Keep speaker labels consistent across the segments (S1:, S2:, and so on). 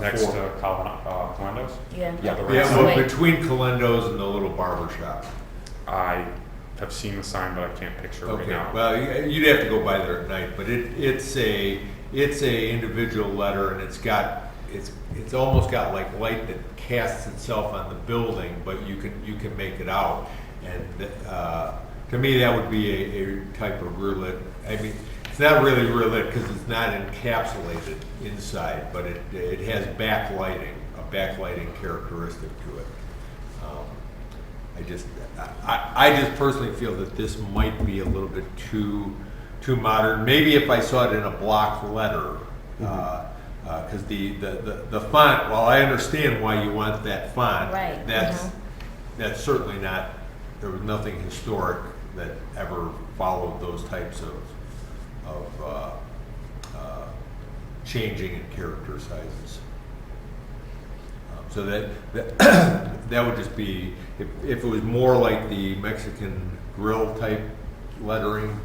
S1: next
S2: Four.
S1: to Colin, uh, Colandos.
S3: Yeah.
S2: Yeah.
S1: The right
S4: Yeah,
S1: side.
S3: Wait.
S4: but between Colendo's and the little barber shop.
S1: I have seen the sign, but I can't picture right
S4: Okay,
S1: now.
S4: well, you- you'd have to go by there at night, but it, it's a, it's a individual letter and it's got, it's, it's almost got like light that casts itself on the building, but you can, you can make it out. And, uh, to me, that would be a, a type of rear lit, I mean, it's not really rear lit because it's not encapsulated inside, but it, it has backlighting, a backlighting characteristic to it. Um, I just, I, I just personally feel that this might be a little bit too, too modern. Maybe if I saw it in a block letter, because the, the, the- the font, while I understand why you want that font.
S3: Right,
S4: That's,
S3: mhm.
S4: that's certainly not, there was nothing historic that ever followed those types of, of uh, uh, changing in character sizes. Um, So that, that, that would just be, if, if it was more like the Mexican grill type lettering,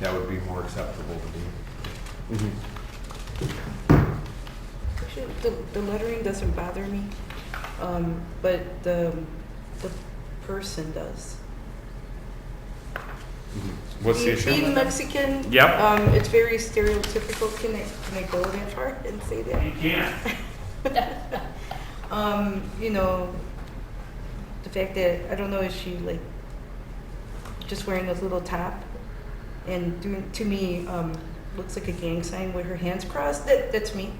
S4: that would be more acceptable to me.
S5: Actually, the, the lettering doesn't bother me, um, but the, the person does.
S1: What's the
S5: Being-
S1: issue?
S5: Being Mexican.
S1: Yep.
S5: Um, it's very stereotypical. Can I, can I go that far and say that?
S1: can't.
S5: Um, you know, the fact that, I don't know, is she like just wearing a little top? And doing, to me, um, looks like a gang sign with her hands crossed. That, that's me.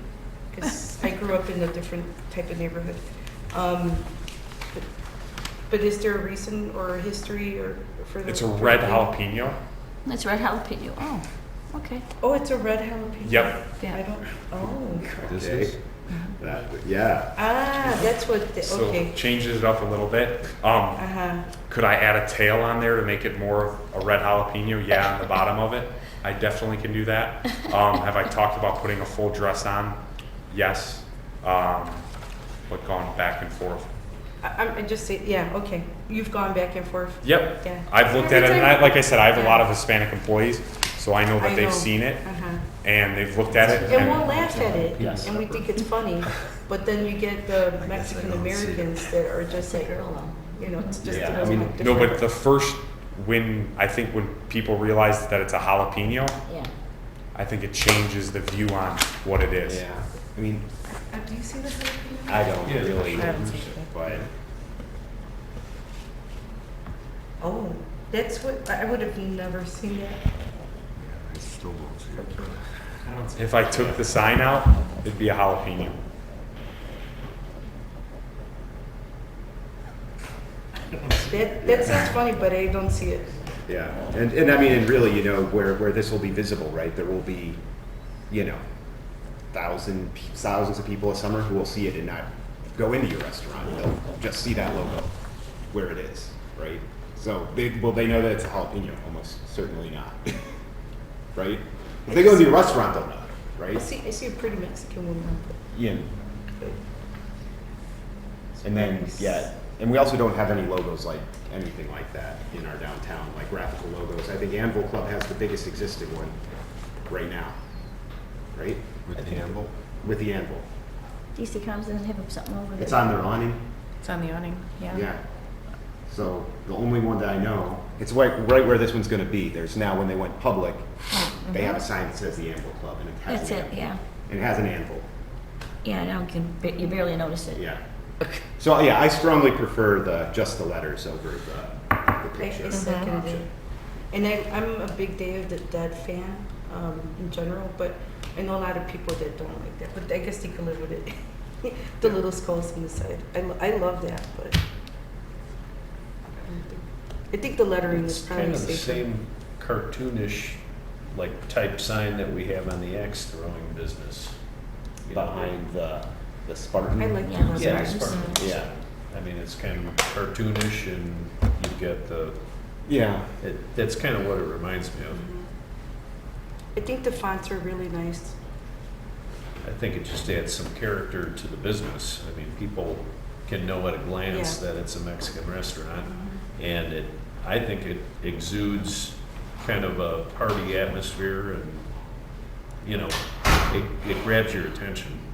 S5: Cause I grew up in a different type of neighborhood. Um, but, but is there a reason or a history or for the?
S1: It's a red
S5: for-
S1: jalapeno.
S3: That's red jalapeno. Oh, okay.
S5: Oh, it's a red jalapeno.
S1: Yep.
S5: I
S3: Yeah.
S5: don't, oh.
S2: This
S4: Okay.
S2: is, that, yeah.
S5: Ah, that's what, the-
S1: So
S5: okay.
S1: changes it up a little bit. Um,
S5: Uh-huh.
S1: Could I add a tail on there to make it more of a red jalapeno? Yeah, on the bottom of it. I definitely can do that. Um, have I talked about putting a full dress on? Yes. Um, but gone back and forth.
S5: I, I'm I just say, yeah, okay. You've gone back and forth.
S1: Yep.
S5: Yeah.
S1: I've looked at it, and I, like I said, I have a lot of Hispanic employees, so I know
S5: I
S1: that they've
S5: know.
S1: seen it
S5: Uh-huh.
S1: and they've looked at it.
S5: And we'll laugh at it,
S2: Yes.
S5: and we think it's funny, but then you get the
S4: I
S5: Mexican
S4: don't see it.
S5: Americans that are
S3: It's
S5: just
S3: a
S5: like, oh,
S3: girl.
S5: you know, it's just.
S2: Yeah,
S5: a
S2: I mean,
S5: different-
S1: No, but the first when I think when people realize that it's a jalapeno,
S3: Yeah.
S1: I think it changes the view on what it is.
S2: I mean,
S5: Uh, Do you see the jalapeno?
S2: I don't
S4: Yeah.
S2: really,
S5: I haven't seen it.
S2: but
S5: Oh, that's what, I I would have never seen that.
S4: I still don't see it.
S1: If I took the sign out, it'd be a jalapeno.
S5: That, that sounds funny, but I don't see it.
S2: yeah. And, and I mean, and really, you know, where, where this will be visible, right? There will be, you know, thousand, pe- thousands of people a summer who will see it and not go into your restaurant. They'll just see that logo where it is, right? So they, will they know that it's a jalapeno? Almost certainly not, right? If they go to your restaurant, they'll know,
S5: I
S2: right?
S5: see, I see a pretty Mexican woman.
S2: Yeah. And then, yeah, and we also don't have any logos like, anything like that in our downtown, like graphical logos. I think Anvil Club has the biggest existing one right now, right?
S4: With the anvil?
S2: With the Anvil.
S3: DC comes and have something over there.
S2: It's on their awning,
S6: It's on the awning, yeah.
S2: yeah. So the only one that I know, it's right, right where this one's gonna be. There's now, when they went public, they have a sign that says the Anvil Club and it
S3: Mm-hmm. That's
S2: has an
S3: it,
S2: anvil.
S3: yeah.
S2: And it has an anvil.
S3: Yeah, now you can, ba- you barely notice it.
S2: Yeah. So yeah, I strongly prefer the just the letters over the, the
S5: I,
S2: picture.
S5: I second
S2: Uh-huh.
S5: it. And I, I'm a big Day of the Dead fan um, in general, but I know a lot of people that don't like that. But I guess they can live with it. the little skulls on the side. I, lo- I love that, but I don't think- I think the lettering
S7: It's
S5: is probably
S7: kind of the
S5: safer.
S7: same cartoonish, like type sign that we have on the axe throwing business behind the, the Spartan.
S5: I like
S3: Yeah.
S5: that.
S7: Yeah, the
S3: Spartans.
S7: Spartan, yeah. I mean, it's kind of cartoonish and you've got the,
S2: Yeah.
S7: it, that's kind of what it reminds me of.
S5: Mm-hmm. I think the fonts are really nice.
S7: I think it just adds some character to the business. I mean, people can know at a glance
S5: Yeah.
S7: that it's a Mexican restaurant. And it, I think it exudes kind of a party atmosphere and, you know, it, it grabs your attention.